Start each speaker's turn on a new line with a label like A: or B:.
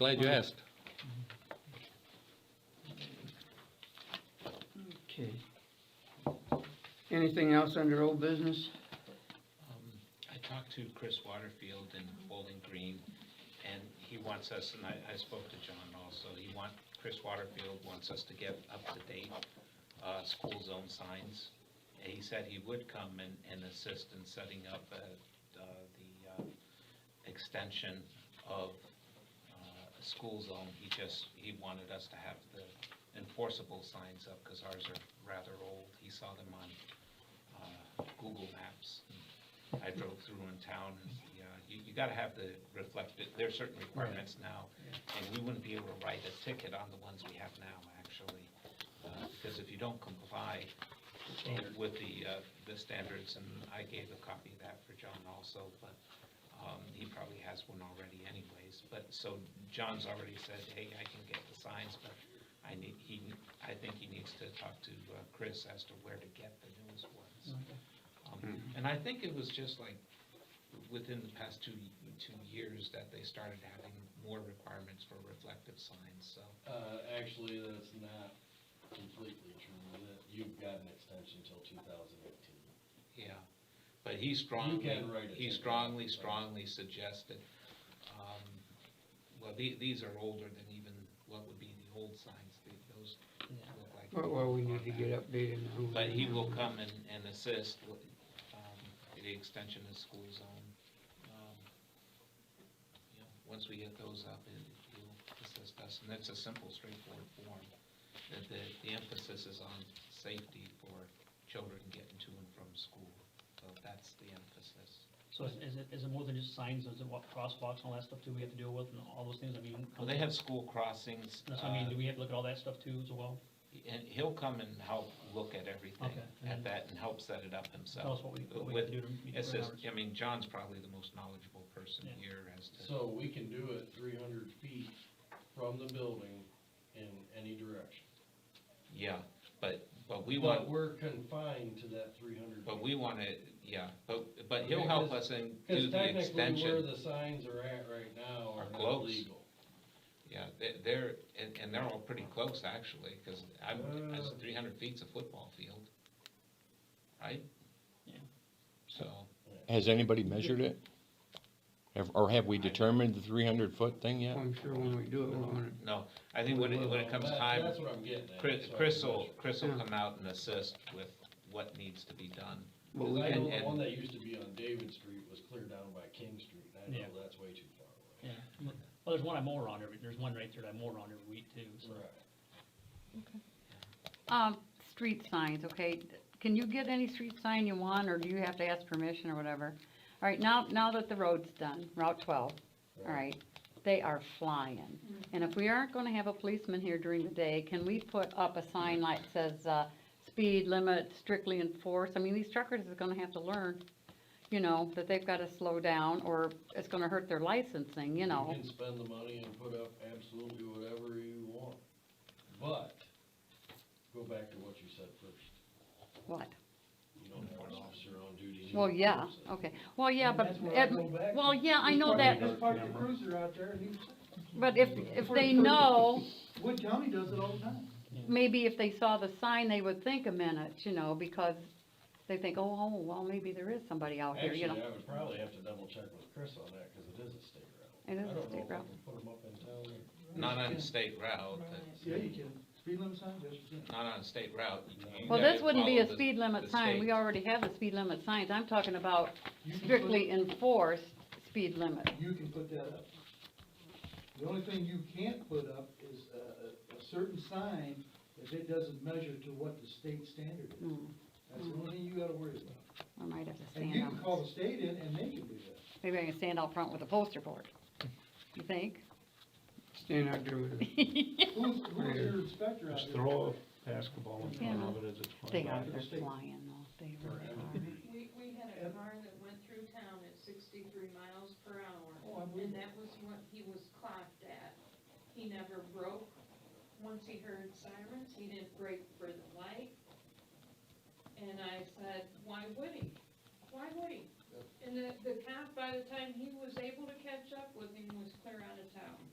A: Glad you asked.
B: Okay. Anything else under old business?
C: Um, I talked to Chris Waterfield in Bowling Green, and he wants us, and I, I spoke to John also, he want, Chris Waterfield wants us to get up to date, uh, school zone signs. And he said he would come and, and assist in setting up, uh, uh, the, uh, extension of, uh, a school zone. He just, he wanted us to have the enforceable signs up, cause ours are rather old. He saw them on, uh, Google Maps. I drove through in town, and, yeah, you, you gotta have the reflected, there are certain requirements now, and we wouldn't be able to write a ticket on the ones we have now, actually, uh, because if you don't comply with the, uh, the standards, and I gave a copy of that for John also, but, um, he probably has one already anyways, but, so John's already said, hey, I can get the signs, but I need, he, I think he needs to talk to, uh, Chris as to where to get the newest ones. Um,
D: Hmm.
C: And I think it was just like, within the past two, two years that they started having more requirements for reflective signs, so.
D: Uh, actually, that's not completely true, that you've got an extension till two thousand eighteen.
C: Yeah, but he strongly,
D: can write a
C: he
D: ticket,
C: strongly,
D: but-
C: strongly suggested, um, well, the, these are older than even what would be the old signs, the- those look like.
B: Well, Well, we need to get updated on.
C: But he will come and, and assist with, um, the extension of school zone. Um, you know, Once we get those up, it- he'll assist us, and that's a simple, straightforward form. The, the, the emphasis is on safety for children getting to and from school, so that's the emphasis.
E: So is, is it, is it more than just signs, is it what crosswalks and all that stuff too we have to deal with and all those things, I mean?
C: Well, they have school crossings,
E: That's, what I mean,
C: uh,
E: do we have to look at all that stuff too as well?
C: and he'll come and help look at everything,
E: Okay, and
C: at
E: then-
C: that, and help set it up
E: Tell us
C: himself.
E: what we, what we
C: With-
E: have to do to meet
C: It's
E: the
C: just,
E: hours.
C: I mean, John's probably the most knowledgeable person
E: Yeah.
C: here as to,
D: So we can do it three hundred feet from the building in any direction.
C: yeah, but, but we
D: But
C: want,
D: we're confined to that three hundred.
C: but we wanna, yeah, but, but he'll
D: Okay,
C: help us
D: 'cause-
C: and do
D: Cause
C: the
D: technically where
C: extension.
D: the signs are at right now
C: Are
D: are not
C: close.
D: legal.
C: Yeah, they- they're, and, and they're all pretty close, actually, cause I'm,
D: Uh.
C: three hundred feet's a football field, right?
E: Yeah.
C: So,
A: Has anybody measured it? Have- Or have we
C: I-
A: determined the three hundred foot thing yet?
B: I'm sure when we do it, we're gonna,
C: no, I think when it, when it comes
D: That-
C: time,
D: That's what I'm getting at.
C: Chris,
D: that's what I'm
C: Chris will,
D: measuring.
C: Chris will
B: Yeah.
C: come out and assist with what needs to be done.
B: well,
D: Cause
B: we
D: I
C: and-
D: know the
C: and-
D: one that used to be on David Street was clear down by King Street, and I
E: Yeah.
D: know that's way too far away.
E: Yeah, well, there's one I mow around every, there's one right there that I mow around every week too, so.
D: Right.
F: Um, street signs, okay, can you get any street sign you want, or do you have to ask permission or whatever? All right, now, now that the road's done, Route twelve, all right, they are flying. And if we aren't gonna have a policeman here during the day, can we put up a sign like says, uh, speed limit strictly enforced? I mean, these truckers is gonna have to learn, you know, that they've gotta slow down, or it's gonna hurt their licensing, you know?
D: You can spend the money and put up absolutely whatever you want, but, go back to what you said first,
F: What?
D: you don't have an officer on duty. you
F: Well,
D: don't
F: yeah,
D: force it.
F: okay, well, yeah,
B: And
F: but,
B: that's where I
F: it-
B: go back
F: well,
B: to-
F: yeah, I know that,
B: Just park the cruiser out there and you,
F: But if, if they know,
B: Wood County does it all the time.
F: maybe if they saw the sign, they would think a minute, you know, because they think, oh, oh, well, maybe there is somebody out here,
D: Actually,
F: you know.
D: I would probably have to double check with Chris on that, cause it is a state route.
F: It is
D: I
F: a
D: don't know
F: state
D: if we
F: route.
D: can Put 'em up in town or-
C: Not on a state route,
B: Yeah, you can, speed limit sign, yes, you can.
C: not on a state route. You- you
F: Well,
C: gotta
F: this wouldn't be
C: follow
F: a
C: the-
F: speed
C: the
F: limit sign, we
C: state.
F: already have the speed limit signs, I'm talking about
B: You can put-
F: strictly enforced speed limit.
B: You can put that up. The only thing you can't put up is a, a, a certain sign if it doesn't measure to what the state standard is.
F: Hmm,
B: That's the only thing you gotta worry about.
F: I might have to
B: And you
F: stand
B: can call
F: out,
B: the state in and they can do that.
F: maybe I can stand out front with a poster board, you think?
B: Stand out there with it. Who's, who's your inspector out
G: Just
B: there?
G: throw a basketball in front
F: Yeah.
G: of it as it's
F: They
G: flying by.
F: are, they're flying though, they really
H: We, we had a car that went through town at sixty-three miles per hour,
B: Oh, I believe
H: and
B: it.
H: that was what he was clocked at. He never broke, once he heard sirens, he didn't break for the light. And I said, why would he? Why would he? And the, the cop, by the time he was able to catch up with him, was clear out of town.